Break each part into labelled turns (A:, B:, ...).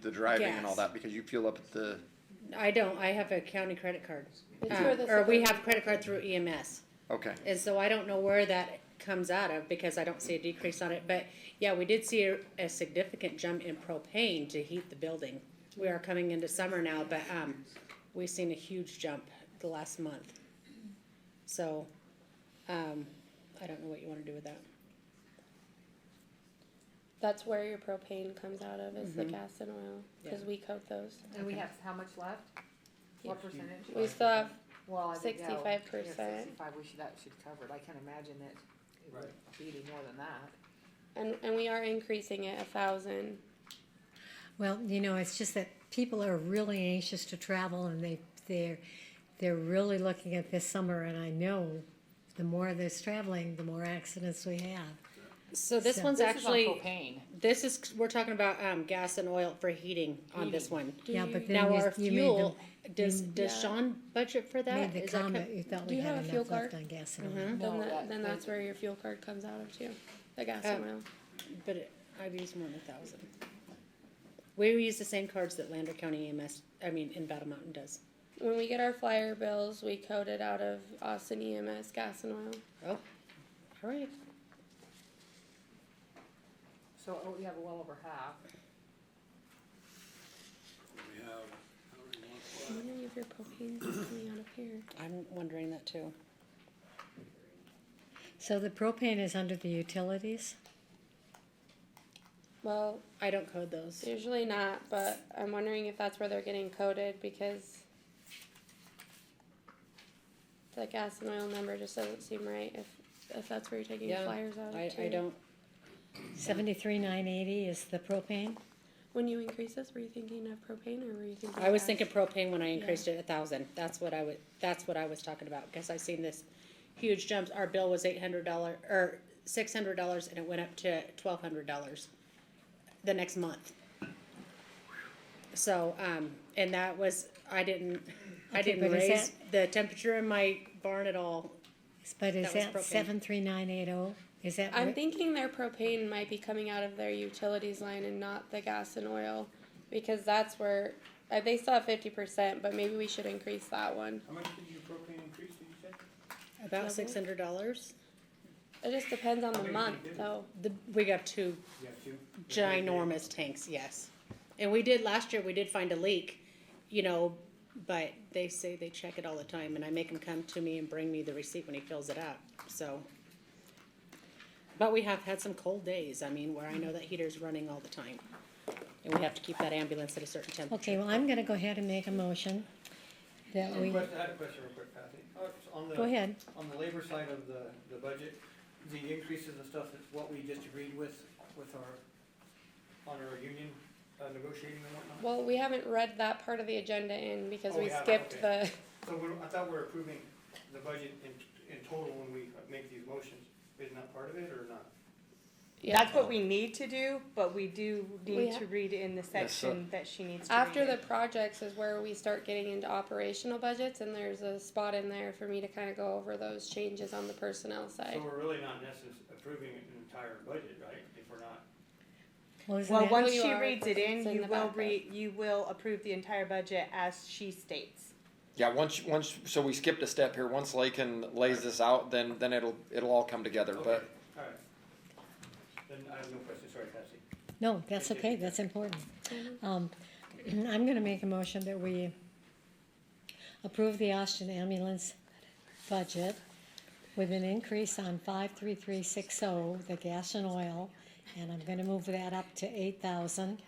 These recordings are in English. A: the driving and all
B: Gas.
A: that because you fuel up at the.
B: I don't, I have a county credit card.
C: It's
B: Um,
C: where the
B: Or we
C: suburban-
B: have credit card through EMS.
A: Okay.
B: And so I don't know where that comes out of because I don't see a decrease on it. But yeah, we did see a, a significant jump in propane to heat the building. We are coming into summer now, but, um, we've seen a huge jump the last month. So, um, I don't know what you wanna do with that.
C: That's where your propane comes out of, is the gas and oil, because
B: Mm-hmm. Yeah.
C: we coat those.
D: And we have how much left? What percentage?
C: We still have,
D: Well, I didn't know.
C: 65%.
D: Yeah, Sixty-five, we should, that should cover it. I can't imagine that it would be any more than that.
C: and, and we are increasing it a thousand.
E: Well, you know, it's just that people are really anxious to travel and they they're they're really looking at this summer and I know the more there's traveling, the more accidents we have.
B: So this
E: So-
B: one's
D: This is on
B: actually,
D: propane.
B: this is, we're talking about, um, gas and oil for heating on this
D: Heating.
B: one.
E: Yeah, but then
B: Now
E: you,
B: our
E: you made the,
B: fuel, does, does Sean budget for
E: made
B: that?
E: the
B: Is that co-
E: comment you thought
C: Do
E: we
C: you
E: had
C: have a
E: enough
C: fuel
E: left
C: card?
E: on gas and oil.
C: Then,
D: No,
C: that,
D: that- Oh.
C: then that's
D: that-
C: where your fuel card comes out of too, the gas and oil.
B: But it- I've used more than a thousand. We use the same cards that Lander County EMS, I mean, in Battle Mountain does.
C: When we get our flyer bills, we code it out of Austin EMS gas and oil.
B: Oh, all right.
D: So, oh, we have well over half.
F: We have, how many months
C: I wonder if your propane's coming out of here.
B: I'm wondering that too.
E: So the propane is under the utilities.
C: Well,
B: I don't code those.
C: usually not, but I'm wondering if that's where they're getting coded because the gas and oil number just doesn't seem right if, if that's where you're taking
B: Yeah,
C: flyers out
B: I,
C: of
B: I
C: too.
B: don't,
E: Seventy three nine eighty is the propane.
C: When you increase this, were you thinking of propane or were you thinking?
B: I was
C: gas?
B: thinking propane when I increased it a thousand. That's what I would, that's what I was talking about, because I seen this huge jumps. Our bill was eight hundred dollar, or six hundred dollars, and it went up to twelve hundred dollars the next month. So, um, and that was, I didn't, I
E: Okay,
B: didn't
E: but is
B: raise the temperature in my barn at all.
E: But is
B: That was
E: that,
B: propane.
E: seven three nine eight oh? Is that
C: I'm
E: where-
C: thinking their propane might be coming out of their utilities line and not the gas and oil because that's where, uh, they still have fifty percent, but maybe we should increase that one.
F: How much did your propane increase, did you say?
B: About
C: Double?
B: six hundred dollars.
C: It just depends on the month though.
B: The, we got two
F: You have two?
B: ginormous tanks, yes. And we did last year, we did find a leak, you know, but they say they check it all the time and I make him come to me and bring me the receipt when he fills it up, so. But we have had some cold days, I mean, where I know that heater's running all the time. And we have to keep that ambulance at a certain temperature.
E: Okay, well I'm gonna go ahead and make a motion that we
G: Question- I had a question real quick, Kathy. Oh, it's On
E: go
G: the,
E: ahead.
G: on the labor side of the, the budget, the increases and stuff, that's what we just agreed with, with our, on our union uh, negotiating and whatnot?
C: Well, we haven't read that part of the agenda in because
G: Oh,
C: we
G: we haven't,
C: skipped the,
G: So we're, I thought we we're approving the budget in, in total when we make these motions. Isn't that part of it or not?
H: That's what we need to do, but we do
C: Oh. We
H: need
C: ha-
H: to read in the
A: Yes, so-
H: section that she needs to read
C: after
H: in.
C: the projects is where we start getting into operational budgets and there's a spot in there for me to kind of go over those changes on the personnel
G: So
C: side.
G: we're really not necessarily approving an entire budget, right? If we're not,
E: Well, isn't
H: Well,
E: that-
H: once
C: You
H: she
C: are,
H: reads it
C: 'cause
H: in,
C: it's in
H: you
C: the
H: will
C: backup.
H: re, you will approve the entire budget as she states.
A: Yeah, once once so we skipped a step here. Once Lakin lays this out, then then it'll it'll all come together. But
G: Okay, all right. Then I have no question, sorry, Patsy.
E: No, that's okay, that's important. Um, I'm gonna make a motion that we approve the Austin ambulance budget with an increase on five three three six oh, the gas and oil, and I'm gonna move that up to eight thousand.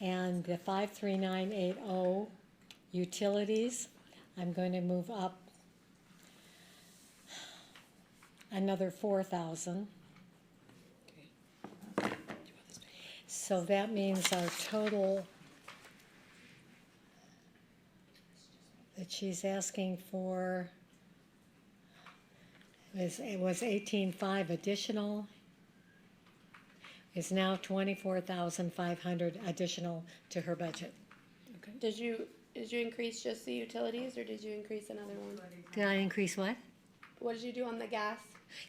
E: And the five three nine eight oh utilities, I'm going to move up another four thousand. So that means our total that she's asking for is, it was eighteen-five additional. Is now twenty-four thousand five hundred additional to her budget.
C: Did you, did you increase just the utilities or did you increase another one?
E: Did I increase what?
C: What did you do on the gas?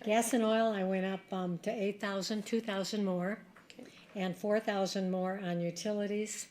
E: Gas and oil, I went up, um, to eight thousand, two thousand more.
C: Okay.
E: and four thousand more on utilities.